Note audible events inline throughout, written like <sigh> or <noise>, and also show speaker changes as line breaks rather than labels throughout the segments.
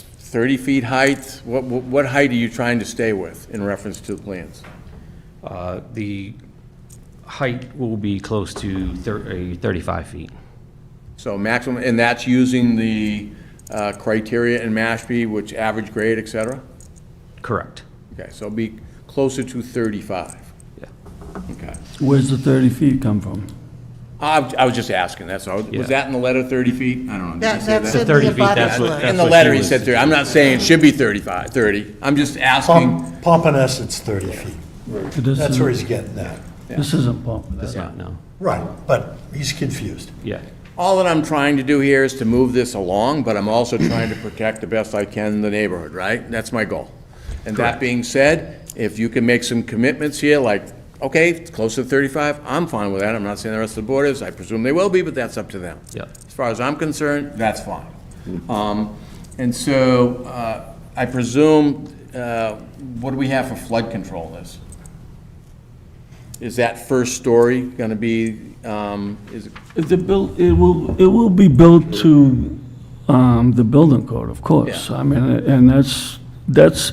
30 feet height? What, what what height are you trying to stay with in reference to the plans?
Uh, The height will be close to thir- eh, 35 feet.
So maximum, and that's using the uh, criteria in Mashpee, which average grade, et cetera?
Correct.
Okay, so be closer to 35.
Yeah.
Okay.
Where's the 30 feet come from?
I was I was just asking, that's all.
Yeah.
Was that in the letter 30 feet? I don't know. Did he
That,
say
that's
that?
in the
30 feet, that's
abutters
what-
letter.
In the
what
letter,
he
he
was-
said 30. I'm not saying it should be 35, 30. I'm just
Um,
asking.
Pom- Pompanesett is 30 feet. That's where he's getting that.
This isn't Pompanesett.
That's not, no.
Right, but he's confused.
Yeah.
All that I'm trying to do here is to move this along, but I'm also trying to protect the best I can the neighborhood, right? That's my goal. And that being said, if you can make some commitments here, like, okay, it's close to 35, I'm fine with that. I'm not saying the rest of the board is, I presume they will be, but that's up to them.
Yeah.
As far as I'm concerned, that's fine. Um, And so uh, I presume, uh, what do we have for flood control in this? Is that first story going to be, um, is it
The bill, it will, it will be built to um, the building code, of course. I mean, and that's, that's,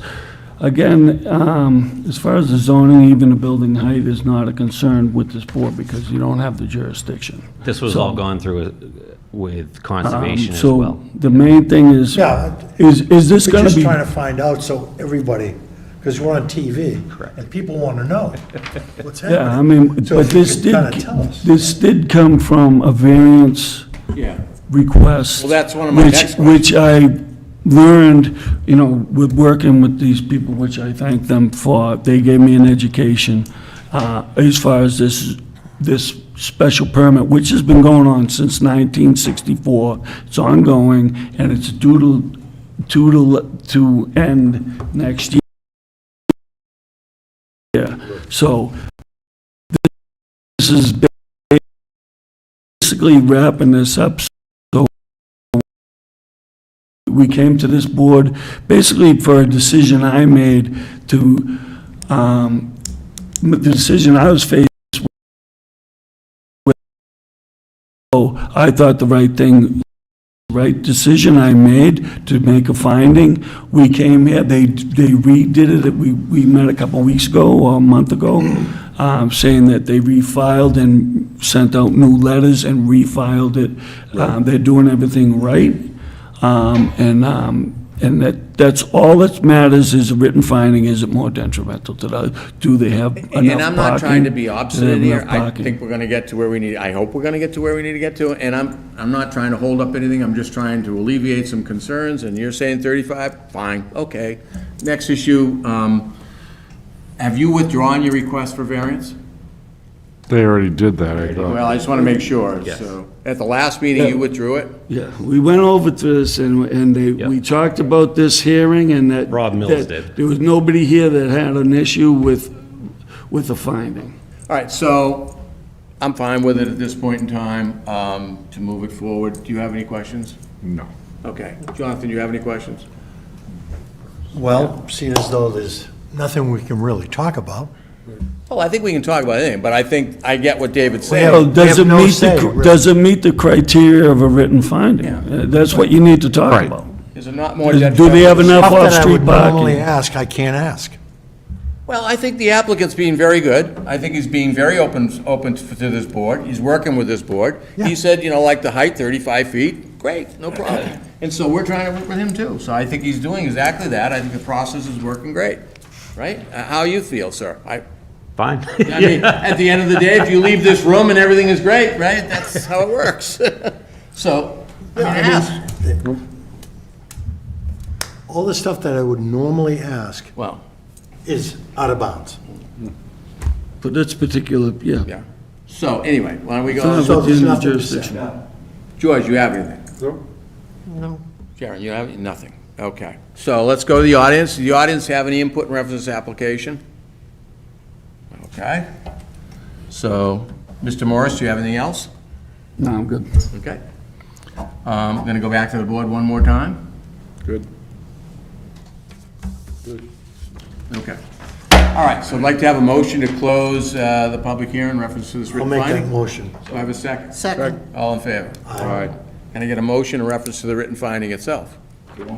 again, um, as far as the zoning, even the building height is not a concern with this board because you don't have the jurisdiction. Um,
This was all gone through uh, with conservation as
So
well.
the main thing is,
Yeah.
is, is this
We're
gonna
just
be?
trying to find out so everybody, because we're on TV.
Correct.
And people want to
<laughs>
know what's happening.
Yeah, I mean,
So
but
if you
this
could
did,
kinda tell us.
this did come from a variance
Yeah.
request.
Well, that's one of my
which-
next
Which I learned, you know, with working with these people, which I thank them for, they gave me an education uh, as far as this, this special permit, which has been going on since 1964. It's ongoing, and it's due to, due to, to end next year. So this is basically wrapping this up. So we came to this board basically for a decision I made to, um, the decision I was faced with. So I thought the right thing, right decision I made to make a finding. We came here, they, they redid it, we, we met a couple of weeks ago, or a month ago, um, saying that they refiled and sent out new letters and refiled it. Um, they're doing everything right. Um, and, um, and that, that's all that matters is a written finding, is it more detrimental to the, do they have enough parking?
And I'm not trying to be
Do they have
obstinate here.
enough
I
parking?
think we're gonna get to where we need, I hope we're gonna get to where we need to get to, and I'm, I'm not trying to hold up anything, I'm just trying to alleviate some concerns, and you're saying thirty-five, fine, okay. Next issue, um, have you withdrawn your request for variance?
They already did that, I thought.
Well, I just wanna make sure, so. At the last meeting, you withdrew it?
Yeah, we went over to this, and, and they, we
Yeah.
talked about this hearing, and that...
Rob Mills
that
did.
There was nobody here that had an issue with, with the finding.
All right, so I'm fine with it at this point in time, um, to move it forward. Do you have any questions?
No.
Okay. Jonathan, you have any questions?
Well, seeing as though there's nothing we can really talk about.
Well, I think we can talk about anything, but I think I get what David's
Yeah,
saying.
So does
they
it
have no
meet
say,
the, cr-
really.
does it meet the criteria of a written finding? Uh, That's what you need to talk
Right.
about.
Is it not more detrimental?
Do they have enough
Stuff that I would
off-street
normally
parking?
ask, I can't ask.
Well, I think the applicant's being very good. I think he's being very open, open to to this board. He's working with this board. He
Yeah.
said, you know, like the height, 35 feet, great, no problem. And so we're trying to work with him too. So I think he's doing exactly that. I think the process is working great, right? Uh, How you feel, sir? I,
Fine.
I mean, at the end of the day, if you leave this room and everything is great, right? That's how it works. <laughs> So, I mean, ask.
All the stuff that I would normally ask
Well,
is out of bounds.
For this particular, yeah.
yeah. So anyway, why don't we
It's not
go,
So there's
within the
nothing to say.
jurisdiction.
George, you have anything?
No.
Sharon, you have, nothing, okay. So let's go to the audience. Does the audience have any input in reference to this application? Okay. So, Mr. Morris, do you have anything else?
No, I'm good.
Okay. Um, I'm going to go back to the board one more time.
Good.
Okay. All right, so I'd like to have a motion to close uh, the public hearing in reference to this
I'll
written
make that
finding. Do
motion.
I have a second?
Second.
All in favor?
All right.
Can I get a motion in reference to the written finding itself?